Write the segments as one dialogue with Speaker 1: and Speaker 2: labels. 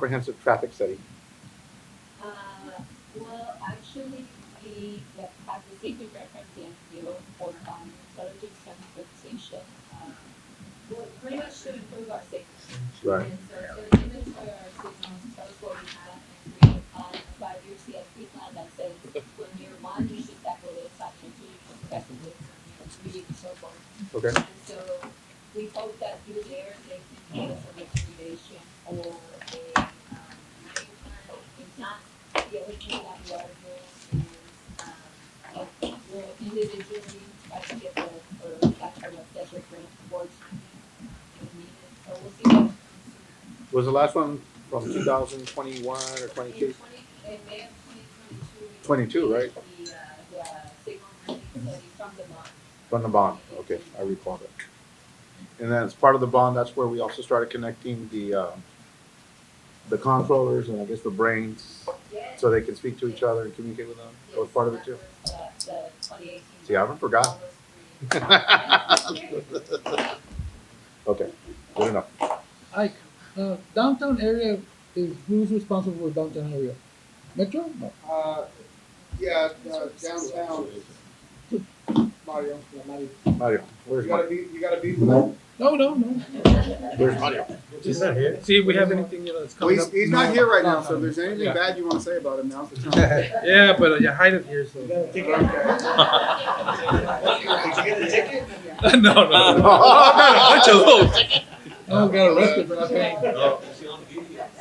Speaker 1: comprehensive traffic study?
Speaker 2: Uh, well, actually, we have had the same department in deal for um, intelligence and compensation. Um, well, pretty much to improve our safety.
Speaker 1: Right.
Speaker 2: And so, so inventory our signals tells what we have and we um, provide your CSP plan that says when you're one, you should tackle this section, two, you should tackle this, you know, three, and so forth.
Speaker 1: Okay,
Speaker 2: And so we hope that through there, they can give us a recommendation or a, um, action plan. It's not, the only thing that we are doing is, um, we're individually trying to get the, or that kind of special grant awards. if needed. So we'll see what comes
Speaker 1: was the last one from two thousand twenty-one or
Speaker 2: through. In
Speaker 1: twenty-two?
Speaker 2: twenty, in May of twenty twenty-two.
Speaker 1: 22, right?
Speaker 2: The, uh, the signal ranking study from the bond.
Speaker 1: From the bond, okay, I recall that. And then as part of the bond, that's where we also started connecting the, uh, the controllers and I guess the brains,
Speaker 2: Yes.
Speaker 1: so they can speak to each other and communicate with them, that was part of it too? See, I haven't forgotten. Okay, good enough.
Speaker 3: Ike, uh, downtown area is who's responsible for downtown area? Metro? No.
Speaker 4: Uh, yeah, uh, downtown, Mario, yeah, Mario.
Speaker 1: Mario,
Speaker 4: You
Speaker 1: where's
Speaker 4: gotta
Speaker 1: Mario?
Speaker 4: be, you gotta be for that.
Speaker 3: No, no, no.
Speaker 1: Where's Mario?
Speaker 5: He's not here. See, we have anything, you know, that's
Speaker 4: Well,
Speaker 5: coming
Speaker 4: he's,
Speaker 5: up.
Speaker 4: he's not here right now,
Speaker 3: No,
Speaker 4: so if there's anything
Speaker 5: Yeah.
Speaker 4: bad you wanna say about him, now's the time.
Speaker 5: Yeah, but uh, you hide it here, so. No, no, no. Bunch of hoes. Oh,
Speaker 3: No, got arrested for not paying.
Speaker 6: Oh,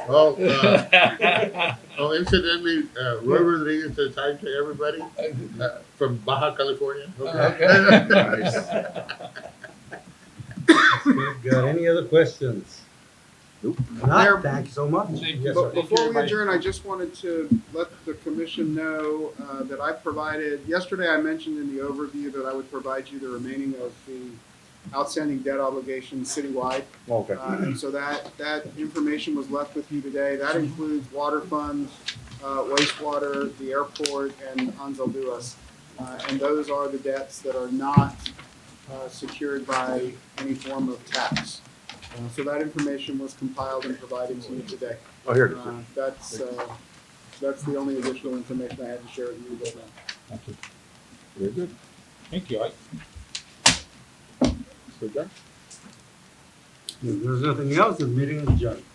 Speaker 6: oh, uh, oh, incidentally, uh, Roy Rodriguez says hi to everybody uh, from Baja California.
Speaker 3: Okay.
Speaker 7: Got any other questions?
Speaker 1: Nope.
Speaker 4: Mayor-
Speaker 7: Not, thank you so much.
Speaker 5: Thank
Speaker 7: Yes,
Speaker 4: But
Speaker 7: sir.
Speaker 4: before we adjourn, I just wanted to let the commission know uh, that I provided, yesterday I mentioned in the overview that I would provide you the remaining of the outstanding debt obligations citywide.
Speaker 1: Okay,
Speaker 4: Uh, and so that, that information was left with you today. That includes water funds, uh, wastewater, the airport, and Hansel Duas. Uh, and those are the debts that are not, uh, secured by any form of tax. Uh, so that information was compiled and provided to you today.
Speaker 1: oh, here it is.
Speaker 4: Uh, that's, uh, that's the only additional information I had to share with you uh, right now.
Speaker 1: Very good.
Speaker 5: Thank you, Ike.
Speaker 1: So, John?
Speaker 7: If there's nothing else, the meeting is adjourned.